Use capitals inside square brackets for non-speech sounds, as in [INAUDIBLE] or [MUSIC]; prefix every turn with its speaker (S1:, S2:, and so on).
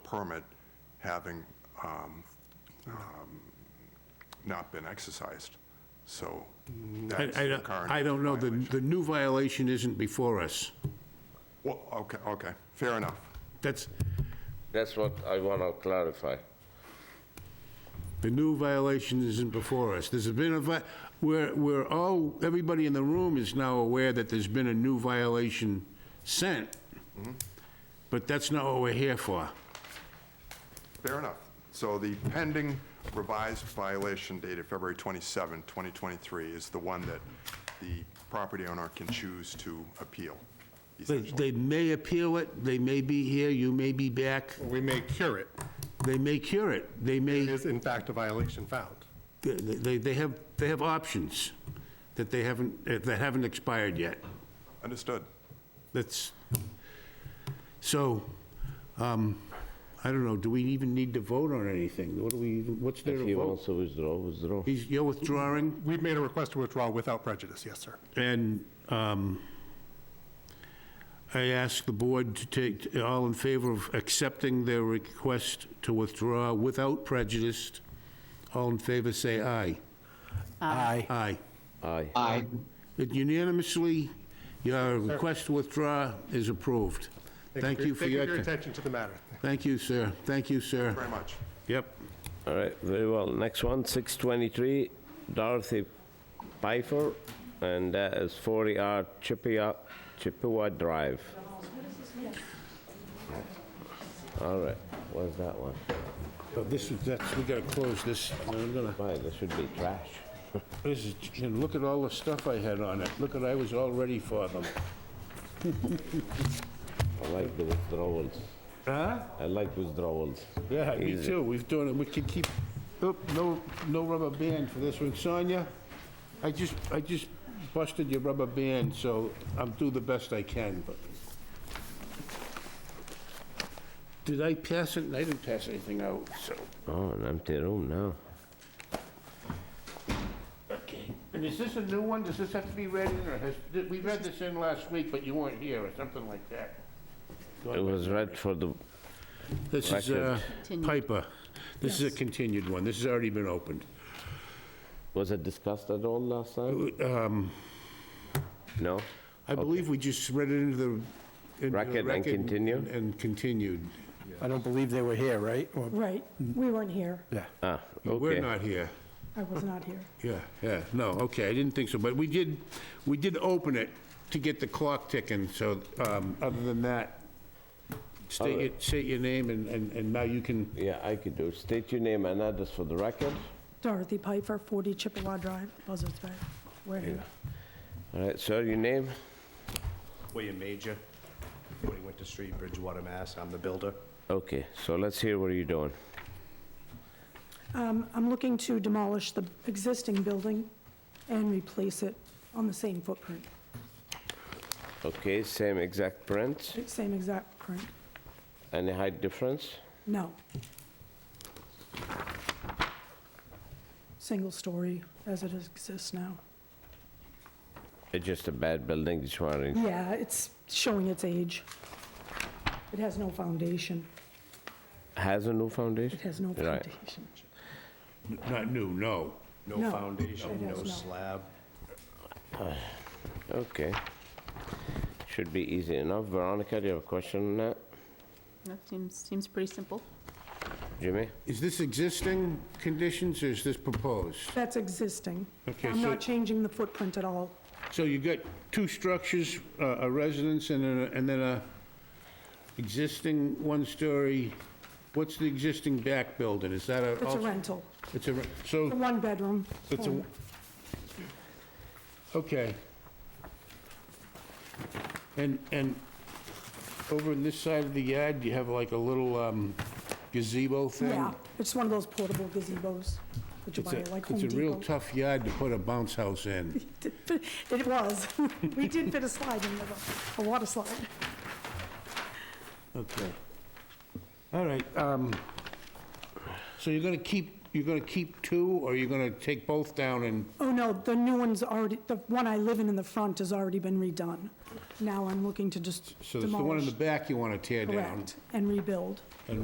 S1: permit having um, um, not been exercised. So
S2: I,
S1: that's
S2: I
S1: the
S2: don't-
S1: current.
S2: I don't know, the,
S1: violation.
S2: the new violation isn't before us.
S1: Well, okay, okay, fair enough.
S2: That's,
S3: That's what I want to clarify.
S2: the new violation isn't before us. There's been a, vi- we're, we're all, everybody in the room is now aware that there's been a new violation sent, but that's not what we're here for.
S1: Fair enough. So the pending revised violation dated February 27, 2023 is the one that the property owner can choose to appeal,
S2: They,
S1: essentially.
S2: they may appeal it, they may be here, you may be back,
S4: We may cure it.
S2: they may cure it, they may,
S4: It is in fact a violation found.
S2: they- they, they have, they have options that they haven't, eh, that haven't expired yet.
S1: Understood.
S2: That's, so, um, I don't know, do we even need to vote on anything? What do we, even- what's there
S3: If he
S2: to
S3: wants
S2: vote?
S3: to withdraw, withdraw.
S2: He's, you're withdrawing,
S4: We've made a request to withdraw without prejudice, yes, sir.
S2: and, um, I ask the board to take, all in favor of accepting their request to withdraw without prejudice, all in favor, say aye. Aye. Aye.
S3: Aye.
S2: It Unanimously, your request to withdraw is approved. Thank you for your,
S4: Thank you for your
S2: ti-
S4: attention to the matter.
S2: thank you, sir, thank you, sir.
S1: Very much.
S2: Yep.
S3: All right, very well. Next one, 623 Dorothy Piper, and that is 40R Chippewa, Chippewa Drive. All right, what's that one?
S2: Oh, This is, that's, we gotta close this. I'm gonna,
S3: Why, this should be trash.
S2: this is, and look at all the stuff I had on it. Look at, I was all ready for them.
S3: I like the withdrawals.
S2: Huh?
S3: I like withdrawals.
S2: Yeah, me
S3: Easy.
S2: too. We've done it. We can keep, oop, no, no rubber band for this one. Sonia, I just, I just busted your rubber band, so I'll do the best I can, but. Did I pass it? I didn't pass anything out, so.
S3: Oh, an empty room now.
S2: Okay. And is this a new one? Does this have to be read in, or has, did- we read this in last week, but you weren't here, or something like that?
S3: It was read for the,
S2: This is
S3: Record.
S2: uh, Piper. This is a continued one. This has already been opened.
S3: was it discussed at all last time?
S2: Um,
S3: No?
S2: I believe we just read it into the... into the
S3: Record and continued?
S2: And continued.
S5: I don't believe they were here, right? Or-
S6: Right,
S2: Mm.
S6: we weren't here.
S5: Yeah.
S3: Ah, okay.
S2: We're not here.
S6: I was not here.
S2: Yeah, yeah, no, okay, I didn't think so, but we did, we did open it to get the clock ticking, so um, other than that, state your, state your name, and- and and now you can
S3: Yeah, I could do. State your name and address for the record.
S6: Dorothy Piper, 40 Chippewa Drive, Buzzards Bay. We're here.
S3: All right, sir, your name?
S7: William Major, 40 Winter Street, Bridgewater, Mass. I'm the builder.
S3: Okay, so let's hear what you're doing.
S6: Um, I'm looking to demolish the existing building and replace it on the same footprint,
S3: Okay, same exact print.
S6: same exact print.
S3: Any height difference?
S6: No. Single story as it exists now.
S3: It's just a bad building, just wondering.
S6: Yeah, it's showing its age. It has no foundation.
S3: Has a new foundation?
S6: It has no
S3: Right.
S6: foundation.
S2: not new, no.
S6: No,
S7: No foundation,
S6: it has
S7: no
S6: no.
S7: slab.
S3: Okay. Should be easy enough. Veronica, do you have a question on that?
S8: That seems, seems pretty simple.
S3: Jimmy?
S2: Is this existing conditions, or is this proposed?
S6: That's existing.
S2: Okay,
S6: I'm
S2: so-
S6: not changing the footprint at all.
S2: So you got two structures, uh, a residence and a- and then a existing one-story, what's the existing back building? Is that a?
S6: It's a rental,
S2: It's a, re-
S6: a
S2: so,
S6: one-bedroom.
S2: it's a, okay. And, and over on this side of the yard, you have like a little um, gazebo thing?
S6: Yeah, it's one of those portable gazebos that you
S2: It's
S6: buy
S2: a,
S6: at like Home
S2: it's a real
S6: Depot.
S2: tough yard to put a bounce house in.
S6: [LAUGHS] It was. We did fit a slide in there, though, a water slide.
S2: Okay. All right, um, so you're gonna keep, you're gonna keep two, or you're gonna take both down and,
S6: Oh, no, the new one's already, the one I live in in the front has already been redone. Now I'm looking to just
S2: so it's the one in
S6: demolish.
S2: the back you wanna tear down?
S6: Correct, and rebuild.